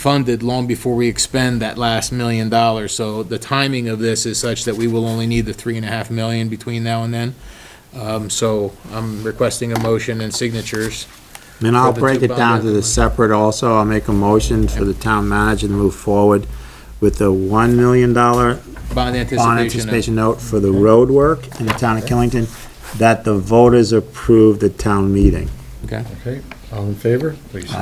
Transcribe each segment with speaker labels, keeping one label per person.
Speaker 1: funded long before we expend that last million dollars. So the timing of this is such that we will only need the three and a half million between now and then. Um, So I'm requesting a motion and signatures.
Speaker 2: And I'll
Speaker 1: the
Speaker 2: break
Speaker 1: two
Speaker 2: it down to
Speaker 1: bond-
Speaker 2: the separate also. I'll make a motion for the town manager to move forward with the $1 million bond
Speaker 1: Bond anticipation.
Speaker 2: anticipation note for the road work in the town of Killington that the voters approved at town meeting.
Speaker 1: Okay.
Speaker 3: Okay, all in favor, please say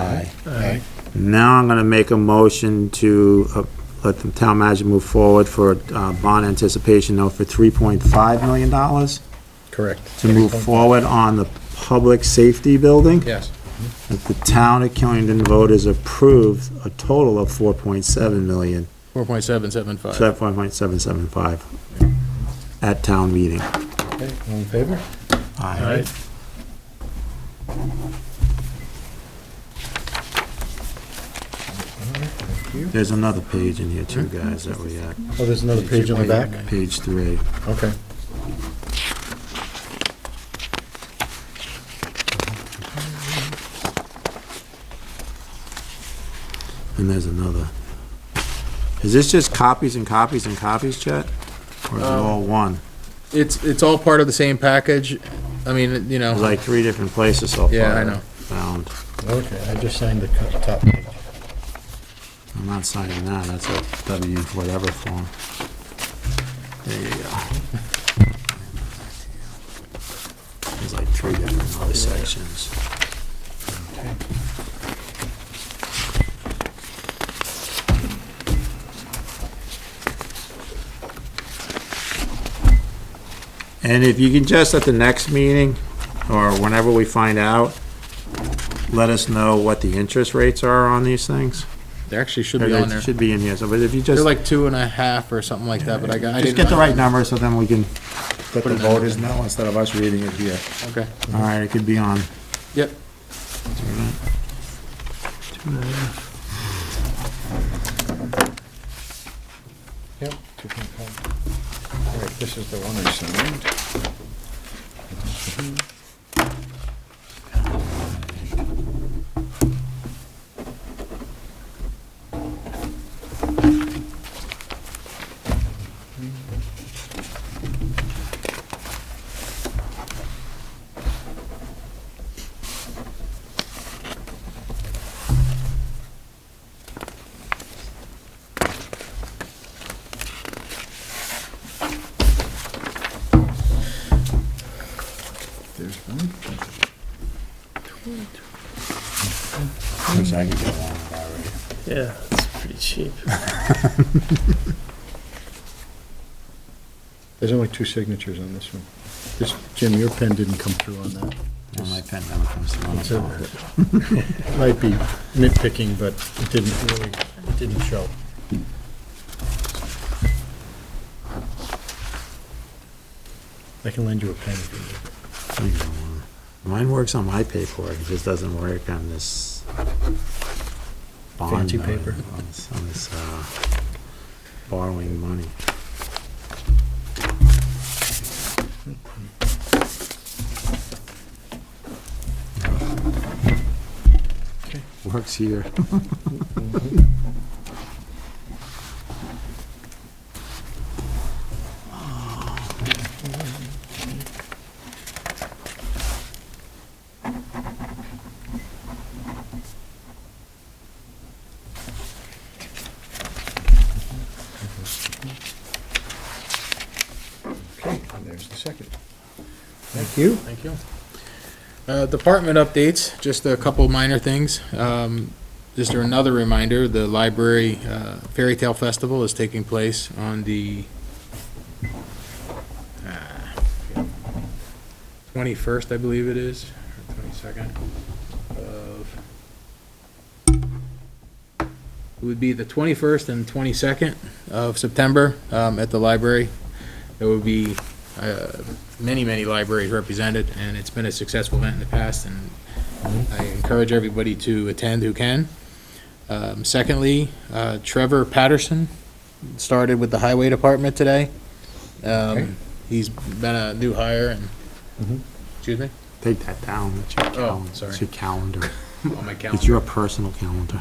Speaker 3: aye.
Speaker 2: Now I'm going to make a motion to uh, let the town manager move forward for a uh, bond anticipation note for $3.5 million
Speaker 3: Correct.
Speaker 2: to move forward on the public safety building.
Speaker 1: Yes.
Speaker 2: that The town of Killington voters approved a total of 4.7 million
Speaker 1: 4.775.
Speaker 2: So that five point seven seven five at town meeting.
Speaker 3: Okay, all in favor?
Speaker 2: Aye.
Speaker 3: Thank you.
Speaker 2: There's another page in here too, guys, that we, uh,
Speaker 3: Oh, there's another page on the back?
Speaker 2: page three.
Speaker 3: Okay.
Speaker 2: And there's another. Is this just copies and copies and copies, Chet? Or is it
Speaker 3: Um,
Speaker 2: all one?
Speaker 1: It's, it's all part of the same package. I mean, you know.
Speaker 2: There's like three different places so far.
Speaker 1: Yeah, I know.
Speaker 2: Found.
Speaker 3: Okay, I just signed the co- top page.
Speaker 2: I'm not signing that, that's a W whatever form. There you go. There's like three different other sections. And if you can just at the next meeting, or whenever we find out, let us know what the interest rates are on these things.
Speaker 1: They actually should
Speaker 2: Yeah,
Speaker 1: be
Speaker 2: they
Speaker 1: on there.
Speaker 2: Should be in here, so, but if you
Speaker 1: They're
Speaker 2: just,
Speaker 1: like two and a half or something like that, but I got, I
Speaker 2: just
Speaker 1: didn't.
Speaker 2: get the right number, so then we can let
Speaker 1: Put
Speaker 2: the
Speaker 1: it in.
Speaker 2: voters know instead of us reading it here.
Speaker 1: Okay,
Speaker 2: All right, it could be on.
Speaker 1: yep.
Speaker 3: Yep. two point five. All right, this is the one I signed. There's one.
Speaker 2: Wish I could get one of that right.
Speaker 4: Yeah, it's pretty cheap.
Speaker 3: There's only two signatures on this one. This, Jim, your pen didn't come through on that.
Speaker 2: Well, my pen never comes through on
Speaker 3: It's
Speaker 2: the phone.
Speaker 3: a- Might be nitpicking, but it didn't really, it didn't show. I can lend you a pen if you need it.
Speaker 2: You can get one. Mine works on my paperwork, it just doesn't work on this. bond
Speaker 3: Fancy
Speaker 2: note,
Speaker 3: paper.
Speaker 2: On this, on this, uh, borrowing money.
Speaker 3: Okay.
Speaker 2: Works here.
Speaker 3: Okay, and there's the second. Thank you.
Speaker 1: Thank you. Uh, Department updates, just a couple minor things. Um, Just another reminder, the library uh, Fairy Tale Festival is taking place on the ah, 21st, I believe it is, or 22nd of, it would be the 21st and 22nd of September um, at the library. It would be uh, many, many libraries represented, and it's been a successful event in the past, and I encourage everybody to attend who can. Um, Secondly, uh, Trevor Patterson started with the Highway Department today.
Speaker 3: Okay.
Speaker 1: Um, He's been a new hire,
Speaker 3: Mhm.
Speaker 1: and, excuse me,
Speaker 2: Take that down, it's your
Speaker 1: Oh,
Speaker 2: calendar,
Speaker 1: sorry.
Speaker 2: it's your calendar.
Speaker 1: on my calendar.
Speaker 2: It's your personal calendar.